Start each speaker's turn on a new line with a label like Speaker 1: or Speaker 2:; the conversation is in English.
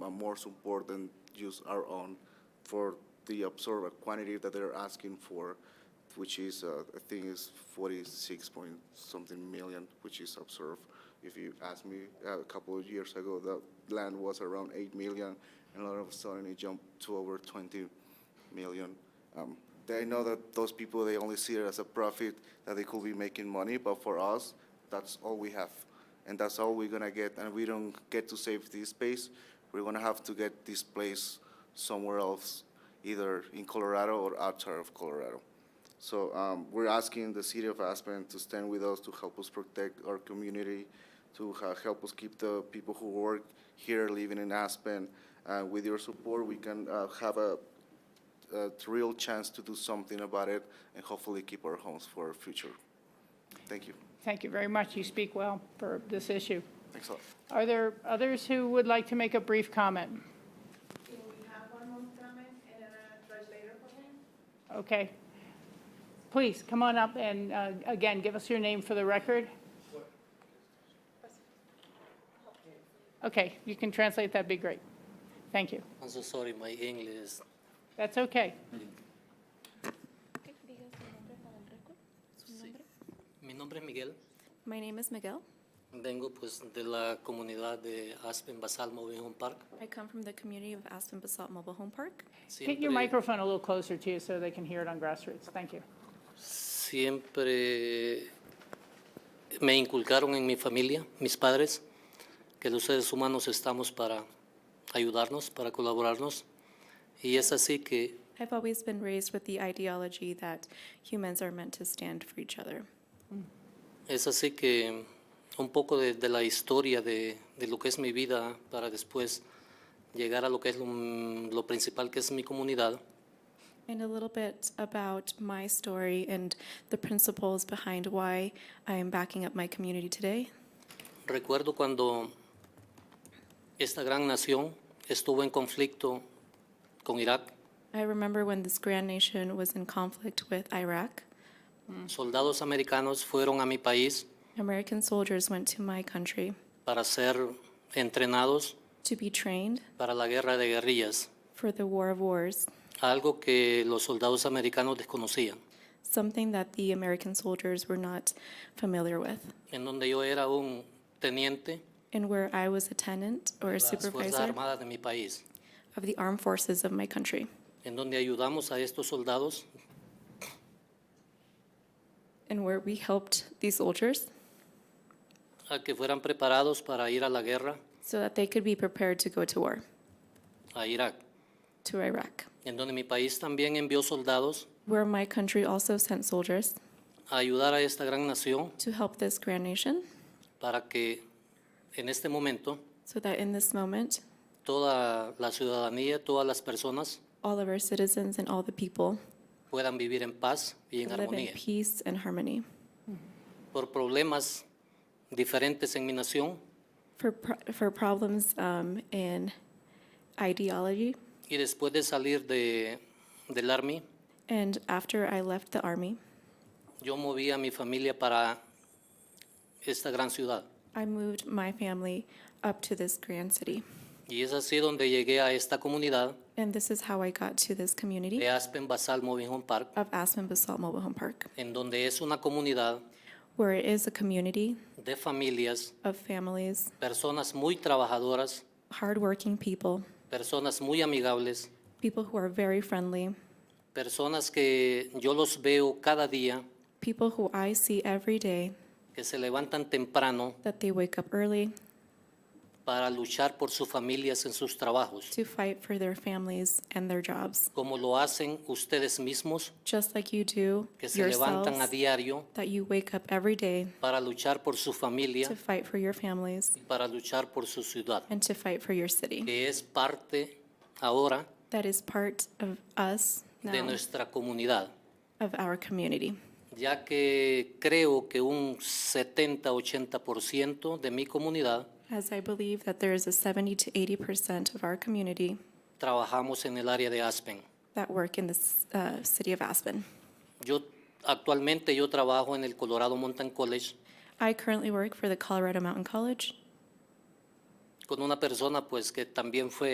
Speaker 1: uh, more support than use our own for the absorbed quantity that they're asking for, which is, uh, I think is forty-six point something million, which is absorbed. If you ask me, uh, a couple of years ago, the land was around eight million, and all of a sudden it jumped to over twenty million. Um, They know that those people, they only see it as a profit, that they could be making money, but for us, that's all we have. And that's all we're gonna get, and we don't get to save this space. We're gonna have to get this place somewhere else, either in Colorado or outside of Colorado. So um, we're asking the city of Aspen to stand with us, to help us protect our community, to ha- help us keep the people who work here living in Aspen. Uh, With your support, we can uh, have a a real chance to do something about it and hopefully keep our homes for our future. Thank you.
Speaker 2: Thank you very much. You speak well for this issue.
Speaker 1: Thanks a lot.
Speaker 2: Are there others who would like to make a brief comment?
Speaker 3: Can we have one more comment and then a translator for him?
Speaker 2: Okay. Please, come on up and, uh, again, give us your name for the record. Okay, you can translate, that'd be great. Thank you.
Speaker 4: I'm so sorry, my English is
Speaker 2: That's okay.
Speaker 5: Ok, diga su nombre para el récord. Su
Speaker 4: Sí.
Speaker 5: nombre.
Speaker 4: Mi nombre es Miguel,
Speaker 5: My name is Miguel.
Speaker 4: vengo pues de la comunidad de Aspen Basal Mobile Home Park.
Speaker 5: I come from the community of Aspen Basalt Mobile Home Park.
Speaker 2: Get
Speaker 4: Siempre-
Speaker 2: your microphone a little closer to you so they can hear it on grassroots. Thank you.
Speaker 4: Siempre me inculcaron en mi familia, mis padres, que los seres humanos estamos para ayudarnos, para colaborarnos. Y es así que
Speaker 5: I've always been raised with the ideology that humans are meant to stand for each other.
Speaker 4: Es así que un poco de, de la historia de, de lo que es mi vida para después llegar a lo que es lo, lo principal que es mi comunidad.
Speaker 5: And a little bit about my story and the principles behind why I am backing up my community today.
Speaker 4: Recuerdo cuando esta gran nación estuvo en conflicto con Irak,
Speaker 5: I remember when this grand nation was in conflict with Iraq,
Speaker 4: soldados americanos fueron a mi país
Speaker 5: American soldiers went to my country
Speaker 4: para ser entrenados
Speaker 5: to be trained
Speaker 4: para la guerra de guerrillas,
Speaker 5: for the war of wars.
Speaker 4: algo que los soldados americanos desconocían,
Speaker 5: something that the American soldiers were not familiar with,
Speaker 4: en donde yo era un teniente
Speaker 5: and where I was a tenant or a
Speaker 4: de las Fuerzas
Speaker 5: supervisor
Speaker 4: Armadas de mi país.
Speaker 5: of the armed forces of my country,
Speaker 4: en donde ayudamos a estos soldados
Speaker 5: and where we helped these soldiers
Speaker 4: a que fueran preparados para ir a la guerra
Speaker 5: so that they could be prepared to go to war,
Speaker 4: a Irak,
Speaker 5: to Iraq,
Speaker 4: en donde mi país también envió soldados
Speaker 5: where my country also sent soldiers
Speaker 4: a ayudar a esta gran nación
Speaker 5: to help this grand nation
Speaker 4: para que en este momento
Speaker 5: so that in this moment,
Speaker 4: toda la ciudadanía, todas las personas
Speaker 5: all of our citizens and all the people
Speaker 4: puedan vivir en paz y en
Speaker 5: could live in
Speaker 4: armonía.
Speaker 5: peace and harmony.
Speaker 4: Por problemas diferentes en mi nación
Speaker 5: For, pro- for problems um, in ideology,
Speaker 4: y después de salir de, del Army,
Speaker 5: and after I left the army,
Speaker 4: yo moví a mi familia para esta gran ciudad.
Speaker 5: I moved my family up to this grand city.
Speaker 4: Y es así donde llegué a esta comunidad
Speaker 5: And this is how I got to this community
Speaker 4: de Aspen Basal Moving Home Park,
Speaker 5: of Aspen Basalt Mobile Home Park,
Speaker 4: en donde es una comunidad
Speaker 5: where it is a community
Speaker 4: de familias,
Speaker 5: of families,
Speaker 4: personas muy trabajadoras,
Speaker 5: hardworking people,
Speaker 4: personas muy amigables,
Speaker 5: people who are very friendly,
Speaker 4: personas que yo los veo cada día,
Speaker 5: people who I see every day
Speaker 4: que se levantan temprano
Speaker 5: that they wake up early
Speaker 4: para luchar por sus familias en sus trabajos,
Speaker 5: to fight for their families and their jobs,
Speaker 4: como lo hacen ustedes mismos,
Speaker 5: just like you do
Speaker 4: que se levantan a
Speaker 5: yourselves,
Speaker 4: diario
Speaker 5: that you wake up every day
Speaker 4: para luchar por su
Speaker 5: to
Speaker 4: familia,
Speaker 5: fight for your families
Speaker 4: para luchar por su ciudad,
Speaker 5: and to fight for your city.
Speaker 4: que es parte ahora
Speaker 5: That is part of us
Speaker 4: de
Speaker 5: now,
Speaker 4: nuestra comunidad.
Speaker 5: of our community.
Speaker 4: ya que creo que un 70-80% de mi comunidad
Speaker 5: As I believe that there is a 70 to 80% of our community
Speaker 4: trabajamos en el área de Aspen.
Speaker 5: that work in the uh, city of Aspen.
Speaker 4: Yo actualmente yo trabajo en el Colorado Mountain College
Speaker 5: I currently work for the Colorado Mountain College.
Speaker 4: con una persona pues que también fue